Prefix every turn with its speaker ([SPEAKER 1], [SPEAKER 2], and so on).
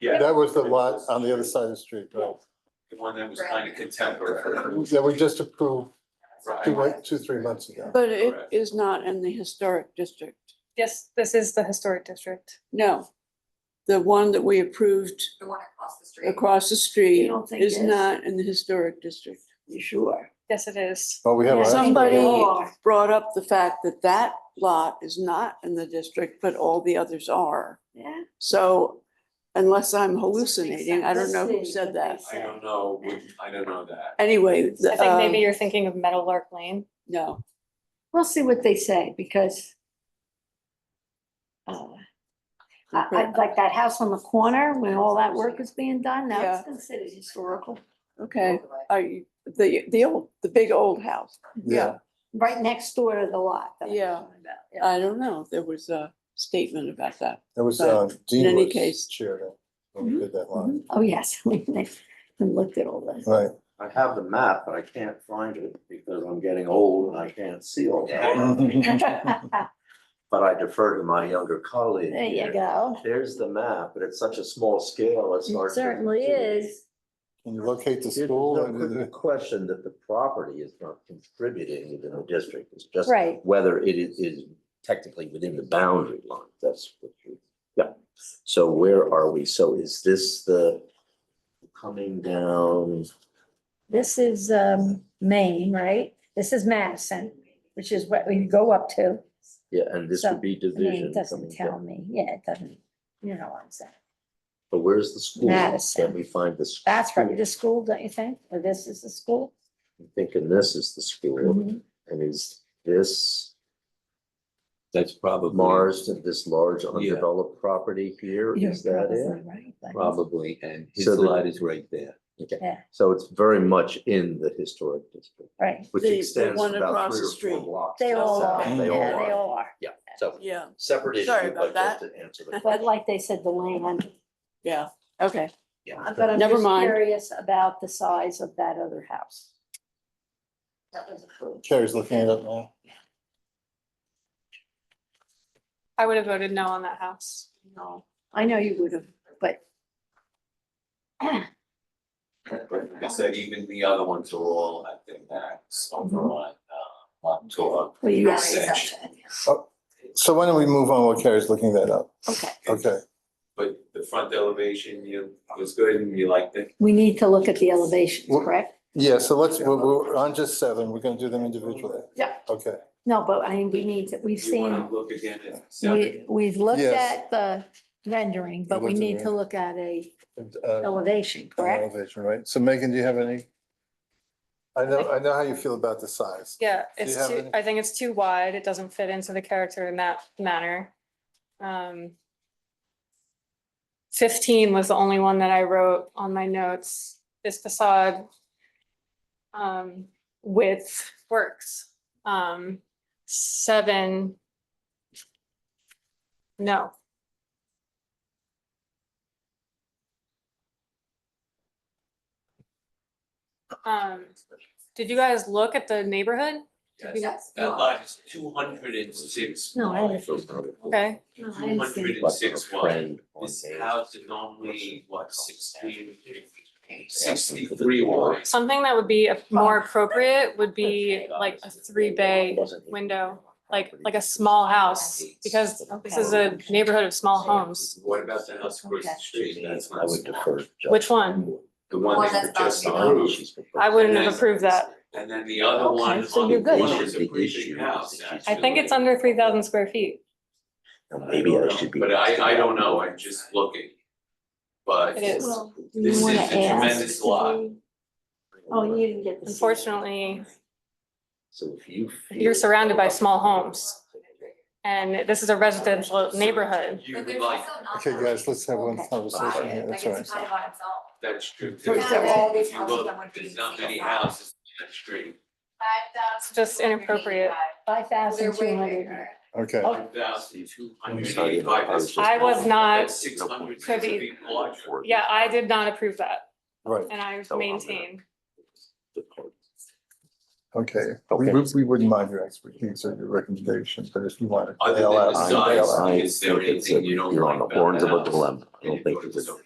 [SPEAKER 1] Yeah.
[SPEAKER 2] That was the lot on the other side of the street, right?
[SPEAKER 1] The one that was kind of contemporary.
[SPEAKER 2] That we just approved two,
[SPEAKER 1] Right.
[SPEAKER 2] like, two, three months ago.
[SPEAKER 3] But it
[SPEAKER 1] Correct.
[SPEAKER 3] is not in the historic district.
[SPEAKER 4] Yes, this is the historic district.
[SPEAKER 3] No. The one that we approved
[SPEAKER 5] The one across the street.
[SPEAKER 3] across the street
[SPEAKER 6] don't think
[SPEAKER 3] is
[SPEAKER 6] is?
[SPEAKER 3] not in the historic district.
[SPEAKER 6] You sure?
[SPEAKER 4] Yes, it is.
[SPEAKER 2] Oh, we have. our-
[SPEAKER 3] Somebody
[SPEAKER 6] Yeah.
[SPEAKER 3] brought up the fact that that lot is not in the district, but all the others are.
[SPEAKER 6] Yeah.
[SPEAKER 3] So unless I'm hallucinating, I don't know who
[SPEAKER 6] Let's see
[SPEAKER 3] said
[SPEAKER 6] what
[SPEAKER 3] that.
[SPEAKER 6] they
[SPEAKER 1] I don't know, we- I don't know that.
[SPEAKER 3] Anyway, the,
[SPEAKER 4] I think maybe
[SPEAKER 3] um,
[SPEAKER 4] you're thinking of Meadowlark Lane.
[SPEAKER 3] no,
[SPEAKER 6] We'll see what they say because uh, I, I, like that house on the corner, when all that work is being done, now
[SPEAKER 3] Yeah.
[SPEAKER 6] it's considered historical.
[SPEAKER 3] okay. Are you, the, the old, the big old house?
[SPEAKER 2] Yeah,
[SPEAKER 6] Right next door to the lot. that I'm
[SPEAKER 3] Yeah. Uh,
[SPEAKER 6] talking about, yeah.
[SPEAKER 3] I don't know. There was a statement about that.
[SPEAKER 2] that was,
[SPEAKER 3] But
[SPEAKER 2] uh,
[SPEAKER 3] in
[SPEAKER 2] Dean
[SPEAKER 3] any
[SPEAKER 2] was
[SPEAKER 3] case- Mm-hmm.
[SPEAKER 2] chair then, when we did that lot.
[SPEAKER 6] Oh, yes, we we looked at all that.
[SPEAKER 2] Right,
[SPEAKER 7] I have the map, but I can't find it because I'm getting old and I can't see all that.
[SPEAKER 2] Mm-hmm.
[SPEAKER 7] But I defer to my younger colleague.
[SPEAKER 6] There you
[SPEAKER 7] here.
[SPEAKER 6] go.
[SPEAKER 7] There's the map, but it's such a small scale, it's hard.
[SPEAKER 6] It
[SPEAKER 7] to-
[SPEAKER 6] certainly is.
[SPEAKER 2] can you locate the
[SPEAKER 7] There's
[SPEAKER 2] school?
[SPEAKER 7] no
[SPEAKER 2] and the-
[SPEAKER 7] Question that the property is not contributing within the district, it's just.
[SPEAKER 6] Right.
[SPEAKER 7] Whether it is, is technically within the boundary line, that's what you, yeah. So where are we? So is this the coming down?
[SPEAKER 8] This is um Maine, right? This is Madison, which is what we go up to.
[SPEAKER 7] Yeah, and this
[SPEAKER 8] So,
[SPEAKER 7] would
[SPEAKER 8] I
[SPEAKER 7] be
[SPEAKER 8] mean,
[SPEAKER 7] division.
[SPEAKER 8] it
[SPEAKER 7] coming
[SPEAKER 8] doesn't tell
[SPEAKER 7] down.
[SPEAKER 8] me, yeah, it doesn't, you know what I'm saying.
[SPEAKER 7] But where's the school?
[SPEAKER 8] Madison.
[SPEAKER 7] Can we find the? school?
[SPEAKER 8] That's probably the school, don't you think? Or this is the school?
[SPEAKER 7] I'm Thinking this is the school
[SPEAKER 8] Mhm.
[SPEAKER 7] and is this
[SPEAKER 1] That's probably.
[SPEAKER 7] Mars, this large
[SPEAKER 1] Yeah.
[SPEAKER 7] undeveloped property here?
[SPEAKER 8] You're
[SPEAKER 7] Is that
[SPEAKER 8] probably
[SPEAKER 7] it?
[SPEAKER 8] right, but-
[SPEAKER 1] Probably, and his
[SPEAKER 7] So the-
[SPEAKER 1] lot is right there.
[SPEAKER 8] Yeah,
[SPEAKER 7] So it's very much in the historic district,
[SPEAKER 8] right.
[SPEAKER 7] which
[SPEAKER 3] The- the
[SPEAKER 7] extends
[SPEAKER 3] one
[SPEAKER 7] about
[SPEAKER 3] across
[SPEAKER 7] three
[SPEAKER 3] the
[SPEAKER 7] or
[SPEAKER 3] street.
[SPEAKER 7] four blocks.
[SPEAKER 8] They
[SPEAKER 7] to the
[SPEAKER 8] all
[SPEAKER 7] south.
[SPEAKER 8] are, yeah,
[SPEAKER 7] They
[SPEAKER 8] they
[SPEAKER 7] all are.
[SPEAKER 8] all are.
[SPEAKER 7] Yeah, so
[SPEAKER 3] Yeah,
[SPEAKER 7] separate issue,
[SPEAKER 3] Sorry about
[SPEAKER 7] but just to answer the
[SPEAKER 6] But
[SPEAKER 7] question.
[SPEAKER 6] like they said, the land,
[SPEAKER 3] yeah, okay.
[SPEAKER 7] Yeah.
[SPEAKER 6] but I'm
[SPEAKER 3] Never
[SPEAKER 6] just
[SPEAKER 3] mind.
[SPEAKER 6] curious about the size of that other house. That was approved.
[SPEAKER 2] Carrie's looking it up now.
[SPEAKER 4] I would have voted no on that house.
[SPEAKER 6] No, I know you would have, but
[SPEAKER 1] But like I said, even the other ones are all, I think, that's
[SPEAKER 6] Mm-hmm.
[SPEAKER 1] over on, uh, on tour.
[SPEAKER 6] well, you
[SPEAKER 1] Yes.
[SPEAKER 6] already said
[SPEAKER 2] So why don't we move on while Carrie's looking that up?
[SPEAKER 6] that. Okay.
[SPEAKER 2] Okay,
[SPEAKER 1] But the front elevation, you, was good and you liked it.
[SPEAKER 6] We need to look at the elevations,
[SPEAKER 2] Well-
[SPEAKER 6] correct?
[SPEAKER 2] yeah, so let's, we're, we're on just seven, we're gonna do them individually.
[SPEAKER 6] Yeah.
[SPEAKER 2] Okay,
[SPEAKER 6] No, but I mean, we need to, we've
[SPEAKER 1] You wanna
[SPEAKER 6] seen,
[SPEAKER 1] look again at seven,
[SPEAKER 8] We, we've looked
[SPEAKER 2] Yes.
[SPEAKER 8] at the rendering, but we
[SPEAKER 2] looked at
[SPEAKER 8] need
[SPEAKER 2] the-
[SPEAKER 8] to look at a
[SPEAKER 2] and, uh,
[SPEAKER 8] elevation, correct?
[SPEAKER 2] elevation, right? So Megan, do you have any? I know, I know how you feel about the size.
[SPEAKER 4] Yeah,
[SPEAKER 2] Do you
[SPEAKER 4] it's
[SPEAKER 2] have
[SPEAKER 4] too,
[SPEAKER 2] any-
[SPEAKER 4] I think it's too wide. It doesn't fit into the character in that manner. Um. Fifteen was the only one that I wrote on my notes. This facade. Um, width works. Um, seven. No, um, did you guys look at the neighborhood?
[SPEAKER 1] Yes.
[SPEAKER 5] Yes.
[SPEAKER 1] that lot is two hundred and six.
[SPEAKER 6] No, I
[SPEAKER 4] Okay,
[SPEAKER 6] No, I
[SPEAKER 1] Two
[SPEAKER 6] understand.
[SPEAKER 1] hundred and
[SPEAKER 7] But
[SPEAKER 1] six
[SPEAKER 7] a
[SPEAKER 1] wide.
[SPEAKER 7] friend on
[SPEAKER 1] This
[SPEAKER 7] Main
[SPEAKER 1] house is
[SPEAKER 7] Street.
[SPEAKER 1] only, what, sixteen, sixty-three wide.
[SPEAKER 4] something that would be more appropriate would be like a three bay
[SPEAKER 7] Wasn't it?
[SPEAKER 4] window, like, like a small house, because this is a neighborhood of small homes.
[SPEAKER 1] What about the house across the
[SPEAKER 6] Okay.
[SPEAKER 1] street? That's
[SPEAKER 7] I
[SPEAKER 1] not
[SPEAKER 7] would
[SPEAKER 1] small.
[SPEAKER 7] defer. to Justin.
[SPEAKER 4] Which one?
[SPEAKER 1] The one
[SPEAKER 5] Well,
[SPEAKER 1] that you
[SPEAKER 5] that's not
[SPEAKER 1] just
[SPEAKER 5] the
[SPEAKER 1] approved.
[SPEAKER 4] I wouldn't have approved that.
[SPEAKER 1] And then the other one
[SPEAKER 6] Okay, so
[SPEAKER 1] on the
[SPEAKER 6] you're good.
[SPEAKER 1] corner is a
[SPEAKER 7] The
[SPEAKER 1] pretty
[SPEAKER 7] issue
[SPEAKER 1] big house.
[SPEAKER 7] is that she's-
[SPEAKER 4] I think it's under three thousand square feet.
[SPEAKER 7] And Maybe I should be.
[SPEAKER 1] But I, I don't know, I'm just looking. But
[SPEAKER 4] It is.
[SPEAKER 6] Well, we
[SPEAKER 1] This
[SPEAKER 6] wanna
[SPEAKER 1] is a
[SPEAKER 6] ask
[SPEAKER 1] tremendous
[SPEAKER 6] to
[SPEAKER 1] lot.
[SPEAKER 6] be- Oh, you didn't get the.
[SPEAKER 4] Unfortunately,
[SPEAKER 7] So if you.
[SPEAKER 4] You're
[SPEAKER 7] feel-
[SPEAKER 4] surrounded by small homes. and this is a residential neighborhood.
[SPEAKER 1] you
[SPEAKER 5] But
[SPEAKER 1] would
[SPEAKER 5] there's
[SPEAKER 1] like,
[SPEAKER 5] also not
[SPEAKER 2] Okay,
[SPEAKER 5] that
[SPEAKER 2] guys,
[SPEAKER 5] many
[SPEAKER 2] let's have one
[SPEAKER 6] Okay.
[SPEAKER 2] conversation here,
[SPEAKER 5] people.
[SPEAKER 2] that's
[SPEAKER 5] Like
[SPEAKER 2] all right.
[SPEAKER 5] it's kind of on itself.
[SPEAKER 1] that's true too.
[SPEAKER 5] There's all these
[SPEAKER 1] If you look,
[SPEAKER 5] houses that would be
[SPEAKER 1] There's not many
[SPEAKER 5] single family.
[SPEAKER 1] houses on that street.
[SPEAKER 5] um,
[SPEAKER 4] It's just inappropriate.
[SPEAKER 6] Five
[SPEAKER 5] They're
[SPEAKER 6] thousand two
[SPEAKER 5] way
[SPEAKER 6] hundred.
[SPEAKER 5] bigger.
[SPEAKER 2] Okay,
[SPEAKER 1] One thousand two hundred eighty-five.
[SPEAKER 7] was
[SPEAKER 4] I was not
[SPEAKER 1] That's six hundred, that's a big lot.
[SPEAKER 4] Yeah, I did not approve that,
[SPEAKER 2] right,
[SPEAKER 4] and I maintain.
[SPEAKER 2] okay.
[SPEAKER 7] Okay.
[SPEAKER 2] We, would- we wouldn't mind your expertise or your recommendations, but if you want to.
[SPEAKER 1] Other than
[SPEAKER 2] bail
[SPEAKER 1] the
[SPEAKER 2] out,
[SPEAKER 7] I-
[SPEAKER 1] size,
[SPEAKER 2] bail out.
[SPEAKER 7] I
[SPEAKER 1] is there
[SPEAKER 7] think it's a-
[SPEAKER 1] anything you don't
[SPEAKER 7] You're
[SPEAKER 1] like
[SPEAKER 7] on the
[SPEAKER 1] about
[SPEAKER 7] horns
[SPEAKER 1] the
[SPEAKER 7] of a
[SPEAKER 1] house?
[SPEAKER 7] dilemma. I
[SPEAKER 1] And
[SPEAKER 7] don't
[SPEAKER 1] you
[SPEAKER 7] think
[SPEAKER 1] go to
[SPEAKER 7] it's
[SPEAKER 1] the
[SPEAKER 7] a
[SPEAKER 1] zone.